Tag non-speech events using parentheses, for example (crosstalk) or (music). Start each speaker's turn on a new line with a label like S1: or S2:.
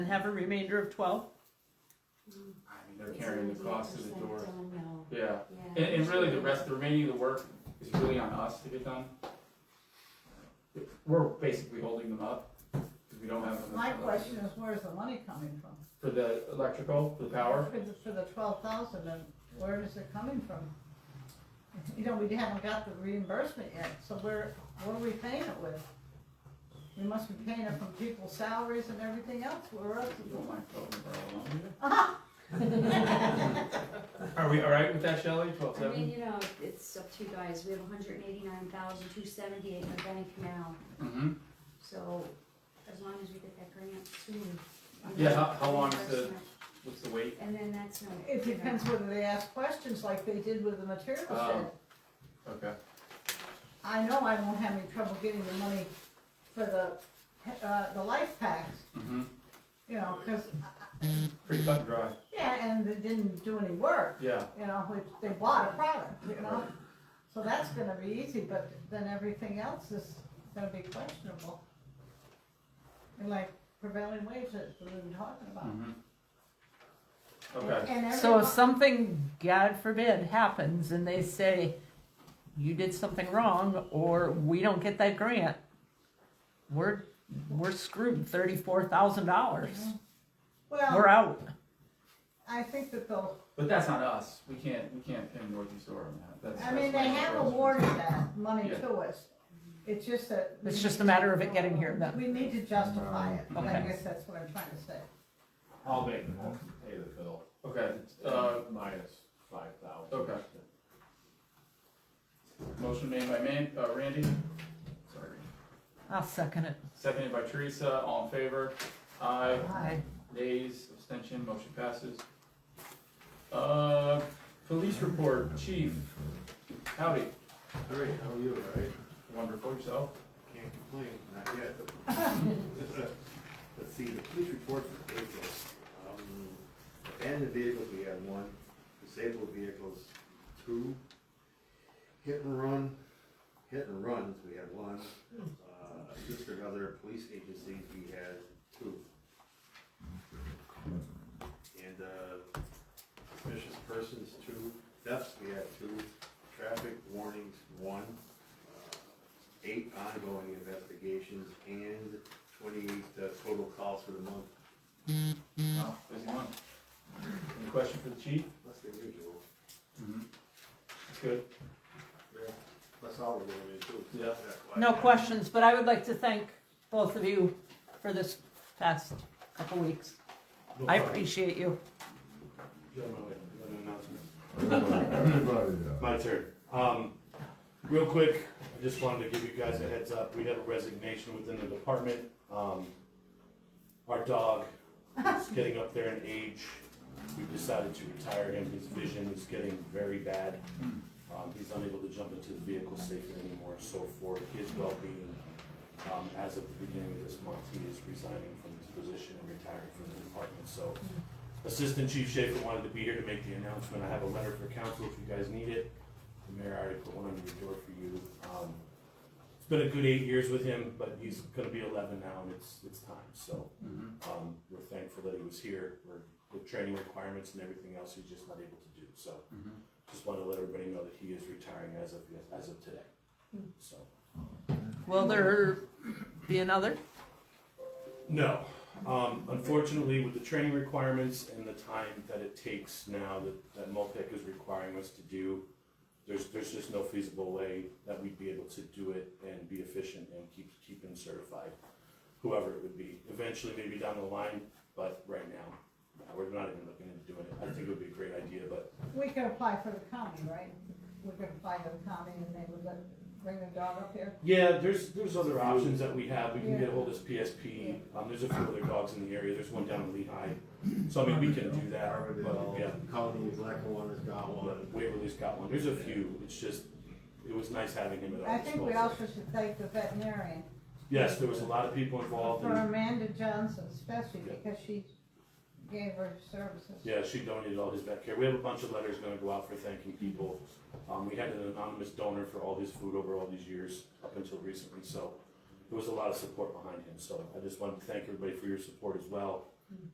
S1: and have a remainder of twelve?
S2: I mean, they're carrying the cost of the doors.
S3: No,
S2: Yeah,
S3: yeah.
S2: and, and really the rest, the remaining of the work is really on us to get done. We're basically holding them up, because we don't have. enough- uh,
S4: My question is, where's the money coming from?
S2: For the electrical, for the power,
S4: For the, for the twelve thousand, and where is it coming from? (laughs) You know, we haven't got the reimbursement yet, so where, what are we paying it with? We must be paying it from people's salaries and everything else, where else?
S2: you don't mind twelve and twelve alone,
S3: (laughs)
S2: do you? Are we all right with that, Shelley, twelve
S3: I mean,
S2: seven?
S3: you know, it's up to you guys, we have hundred and eighty-nine thousand, two seventy-eight in the Benny Canal,
S2: Mm-hmm,
S3: so as long as we get that grant soon. I'm
S2: Yeah,
S3: gonna
S2: how- how long is the-
S3: reimbursement.
S2: what's the weight?
S3: And then that's no.
S4: It depends whether they ask questions like they did with the material shed.
S2: Um, Okay,
S4: I know I won't have any trouble getting the money for the, uh, the life packs,
S2: mm-hmm,
S4: you know, cause,
S2: pretty cut and dry,
S4: yeah, and they didn't do any work.
S2: yeah,
S4: you know, which they bought a product, you know? So that's gonna be easy, but then everything else is gonna be questionable. And like prevailing wage that we've been talking about.
S2: mm-hmm. Okay,
S4: And
S1: So if
S4: everyone-
S1: something, God forbid, happens and they say, you did something wrong, or we don't get that grant, we're, we're screwed thirty-four thousand dollars. We're
S4: Well,
S1: out.
S4: I think that they'll,
S2: but that's on us, we can't, we can't pin Northeast Door on that, that's.
S4: I mean,
S2: that's
S4: they
S2: my
S4: have
S2: question.
S4: awarded that money
S2: Yeah.
S4: to us. It's just that. we
S1: It's
S4: need
S1: just
S4: to-
S1: a matter of it getting here then.
S4: We need to justify it, I
S1: Okay.
S4: guess that's what I'm trying to say.
S5: I'll make the motion to pay the bill.
S2: Okay, uh,
S5: Minus five thousand.
S2: Okay. Motion made by Man, uh, Randy. Sorry.
S1: I'll second it.
S2: Seconded by Teresa, all in favor? Aye,
S1: Aye.
S2: nays, abstention, motion passes. Uh, police report, chief. Howdy,
S6: All right, how are you, all right?
S2: wonderful yourself.
S6: Can't complain, not yet. (laughs) Let's see, the police report for April. Um, Abandoned vehicles, we had one, disabled vehicles, two. Hit and run, hit and runs, we had one. Uh, Assisted other police agencies, we had two. And uh, suspicious persons, two. Thefts, we had two. Traffic warnings, one. Uh, eight ongoing investigations and twenty-eight uh, total calls for the month,
S2: Wow, busy one. Any question for the chief?
S6: less than usual.
S2: That's good.
S6: Yeah. That's all we're doing, too.
S2: Yeah.
S1: (laughs) No questions, but I would like to thank both of you for this past couple weeks. I appreciate you.
S7: Everybody, yeah.
S5: My turn. Um, real quick, I just wanted to give you guys a heads up. We have a resignation within the department. Um, our dog is getting up there in age. We've decided to retire him. His vision is getting very bad. Um, he's unable to jump into the vehicle safely anymore. So for his well-being, um, as of the beginning of this month, he is resigning from his position and retiring from the department. So Assistant Chief Schaefer wanted to be here to make the announcement. I have a letter for council if you guys need it. The mayor already put one under your door for you. Um, It's been a good eight years with him, but he's gonna be eleven now and it's, it's time, so.
S2: Mhm.
S5: Um, we're thankful that he was here, we're, with training requirements and everything else, he's just not able to do, so.
S2: Mhm.
S5: Just wanted to let everybody know that he is retiring as of, as of today, so.
S1: Will there be another?
S5: No, um, unfortunately, with the training requirements and the time that it takes now that, that MOPIC is requiring us to do, there's, there's just no feasible way that we'd be able to do it and be efficient and keep, keep him certified, whoever it would be, eventually maybe down the line, but right now, no, we're not even looking into doing it, I think it would be a great idea, but
S4: Uh, We can apply for the county, right? We can apply for the county and they would let, bring the dog up here.
S5: Yeah, there's, there's other options that we have, we can get ahold of this PSP, um, there's a few other dogs in the area, there's one down in Lehigh, so I mean, we can do that, but, yeah.
S6: Carbondale, Colony, Blackwater has got one.
S5: Waverly's got one, there's a few, it's just, it was nice having him at
S4: I
S5: our
S4: think we
S5: disposal.
S4: also should thank the veterinarian
S5: Yes, there was a lot of people involved,
S4: for
S5: and,
S4: Amanda Johnson especially
S5: Yeah.
S4: because she gave her services.
S5: yeah, she donated all his vet care, we have a bunch of letters gonna go out for thanking people. Um, we had an anonymous donor for all his food over all these years, up until recently, so there was a lot of support behind him, so I just wanted to thank everybody for your support as well.